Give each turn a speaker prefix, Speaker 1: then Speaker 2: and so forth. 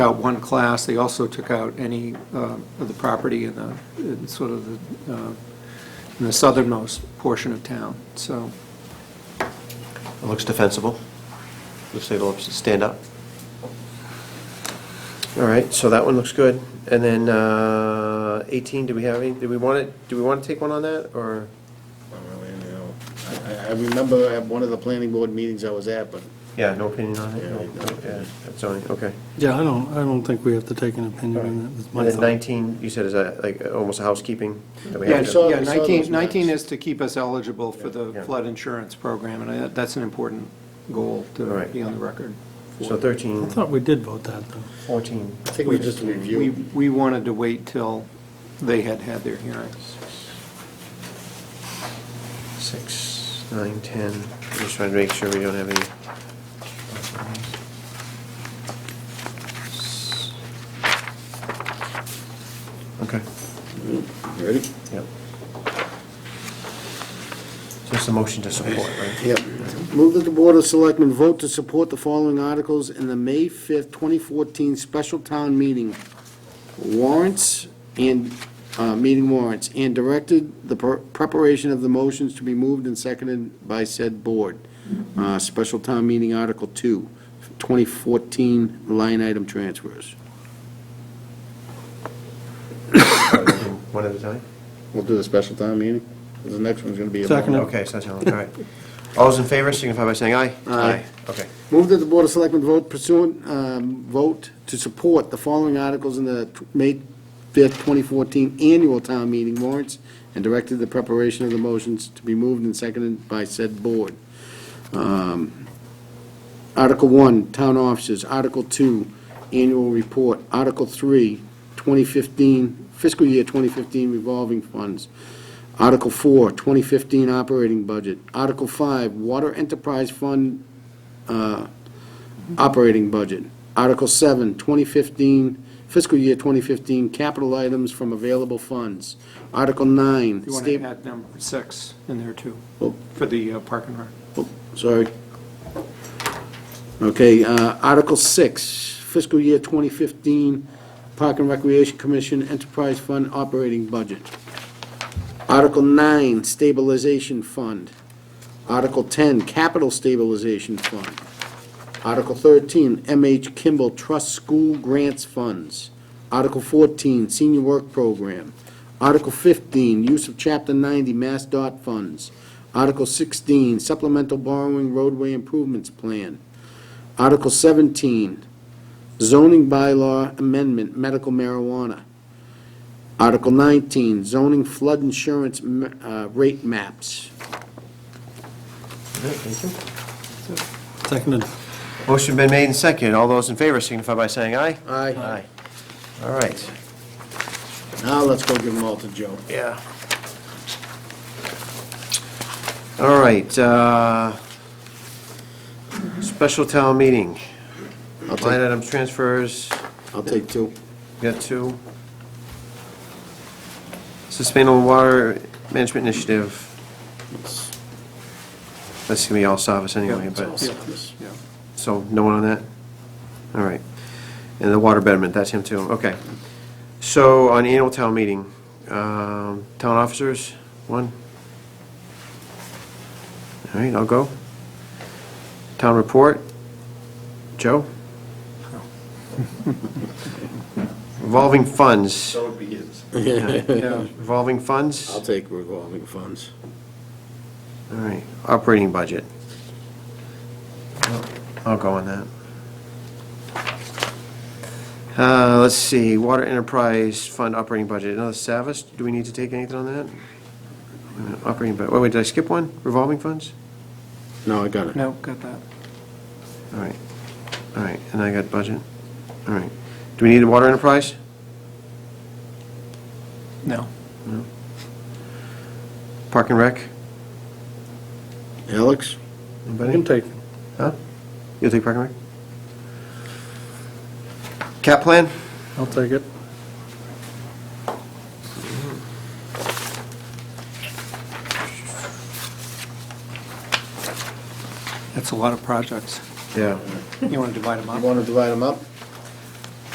Speaker 1: out one class, they also took out any uh, of the property in the, in sort of the, uh, in the southernmost portion of town, so.
Speaker 2: It looks defensible. Looks like it'll stand up. All right, so that one looks good. And then uh, 18, do we have any, do we want it, do we want to take one on that, or?
Speaker 3: Not really, you know. I, I- I remember at one of the planning board meetings I was at, but
Speaker 2: Yeah, no opinion on it?
Speaker 3: Yeah,
Speaker 2: No,
Speaker 3: no
Speaker 2: no, yeah, That's only, okay.
Speaker 4: Yeah, I don't, I don't think we have to take an opinion on that with my
Speaker 2: And then
Speaker 4: thought.
Speaker 2: 19, you said is that like almost housekeeping? that we
Speaker 1: Yeah,
Speaker 2: have to-
Speaker 3: I saw-
Speaker 1: yeah,
Speaker 3: I saw
Speaker 1: 19,
Speaker 3: those
Speaker 1: 19
Speaker 3: maps.
Speaker 1: is to keep us eligible for the
Speaker 2: Yeah.
Speaker 1: flood insurance program, and I- that's an important goal
Speaker 2: All
Speaker 1: to
Speaker 2: right.
Speaker 1: be on the record.
Speaker 2: So
Speaker 4: I
Speaker 2: 13,
Speaker 4: thought we did vote that, though.
Speaker 2: 14,
Speaker 3: I think we just
Speaker 1: We,
Speaker 3: reviewed.
Speaker 1: we wanted to wait till they had had their hearings.
Speaker 2: 6, 9, 10. I'm Just trying to make sure we don't have any. Okay.
Speaker 3: You Ready?
Speaker 2: Yep. So it's a motion to support, right?
Speaker 3: Yep. Move that the Board of Selectmen vote to support the following articles in the May 5th, 2014 special town meeting warrants and, uh, meeting warrants, and directed the per- preparation of the motions to be moved and seconded by said board. Uh, Special town meeting Article 2, 2014 line item transfers.
Speaker 2: One at a time?
Speaker 3: We'll do the special town meeting, 'cause the next one's gonna be a... long
Speaker 4: Second.
Speaker 3: one.
Speaker 2: Okay, so that's all, all right. All those in favor signify by saying aye.
Speaker 3: Aye.
Speaker 2: Okay.
Speaker 3: Move that the Board of Selectmen vote pursuant, um, vote to support the following articles in the tw- May 5th, 2014 annual town meeting warrants and directed the preparation of the motions to be moved and seconded by said board. Um, Article 1, Town Officers. Article 2, Annual Report. Article 3, 2015, fiscal year 2015 revolving funds. Article 4, 2015 operating budget. Article 5, Water Enterprise Fund uh, operating budget. Article 7, 2015, fiscal year 2015, capital items from available funds. Article 9,
Speaker 1: You want to
Speaker 3: sta-
Speaker 1: add number six in there, too,
Speaker 3: Oh.
Speaker 1: for the uh, park and rec.
Speaker 3: oh, sorry. Okay, uh, Article 6, fiscal year 2015, Park and Recreation Commission Enterprise Fund operating budget. Article 9, stabilization fund. Article 10, capital stabilization fund. Article 13, MH Kimball Trust School Grants Funds. Article 14, Senior Work Program. Article 15, use of Chapter 90 Mass Dot Funds. Article 16, supplemental borrowing roadway improvements plan. Article 17, zoning bylaw amendment, medical marijuana. Article 19, zoning flood insurance ma- uh, rate maps.
Speaker 2: All right, Thank you.
Speaker 4: Seconded.
Speaker 2: Motion been made and seconded. All those in favor signify by saying aye.
Speaker 3: Aye.
Speaker 2: All right.
Speaker 3: Now let's go give them all to Joe.
Speaker 2: Yeah. All right, uh, special town meeting.
Speaker 3: I'll
Speaker 2: Line
Speaker 3: take,
Speaker 2: item transfers,
Speaker 3: I'll take two.
Speaker 2: we got two. Sustainable Water Management Initiative, that's gonna be all Savas anyway,
Speaker 1: Yeah,
Speaker 2: but,
Speaker 1: yeah, yeah.
Speaker 2: so no one on that? All right. And the water betterment, that's him too, okay. So on annual town meeting, um, town officers, one. All right, I'll go. Town report, Joe? Revolving funds,
Speaker 5: So it begins.
Speaker 1: Yeah.
Speaker 2: revolving funds,
Speaker 3: I'll
Speaker 2: all
Speaker 3: take revolving funds.
Speaker 2: right, operating budget. I'll- I'll go on that. Uh, let's see, water enterprise fund operating budget, another Savas, do we need to take anything on that? Wait a minute, Operating, budget. wait, did I skip one? Revolving funds?
Speaker 3: No, I got it.
Speaker 1: No, got that.
Speaker 2: All right, all right, and I got budget, all right. Do we need a water enterprise?
Speaker 1: No.
Speaker 2: Park and rec?
Speaker 3: Alex?
Speaker 2: Anybody?
Speaker 4: take.
Speaker 2: Huh? You'll take Park and Rec? Cap plan?
Speaker 4: I'll take it.
Speaker 1: That's a lot of projects.
Speaker 2: Yeah.
Speaker 1: You want to divide them up?
Speaker 3: to divide them up?